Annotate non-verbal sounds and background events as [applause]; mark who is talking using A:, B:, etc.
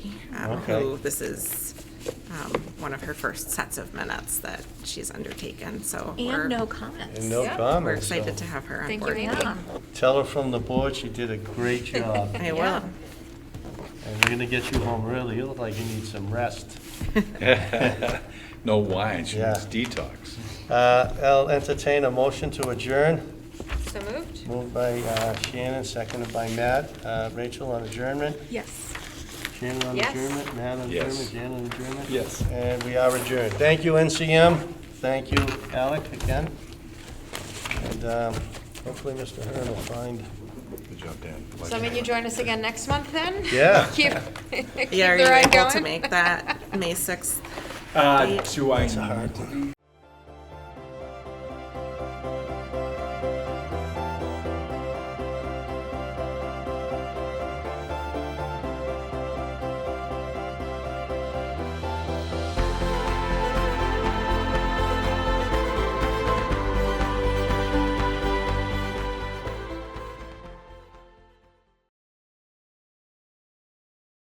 A: um,
B: Okay.
A: who this is um, one of her first sets of minutes that she's undertaken, so. we're-
C: And no comments.
B: And no
C: Yeah.
B: comments.
A: We're
B: so
A: excited to have her on
C: Thank
A: board.
C: you, Amy.
B: Tell her from the board she did a
A: [laughs]
B: great job.
A: I
C: Yeah. [laughs]
A: will.
B: And we're gonna get you home early. You look like you need some rest.
D: [laughs] No wine, she needs
B: Yeah.
D: detox.
B: Uh, I'll entertain a motion to adjourn.
C: So moved?
B: Moved by uh, Shannon, seconded by Matt. Uh, Rachel on adjournment.
C: Yes.
B: Shannon on
C: Yes.
B: adjournment. Matt on
D: Yes.
B: adjournment. Jan on adjournment.
D: Yes.
B: And we are adjourned. Thank you, NCM. Thank you, Alec, again. And um, hopefully Mr. Hearn will find.
D: Good job, Dan.
C: So I mean, you join us again next month then?
B: Yeah.
C: Keep, keep the
A: Yeah, are you
C: ride
A: able to
C: going?
A: make that May 6th?
E: Uh, do I?
B: It's a hard one.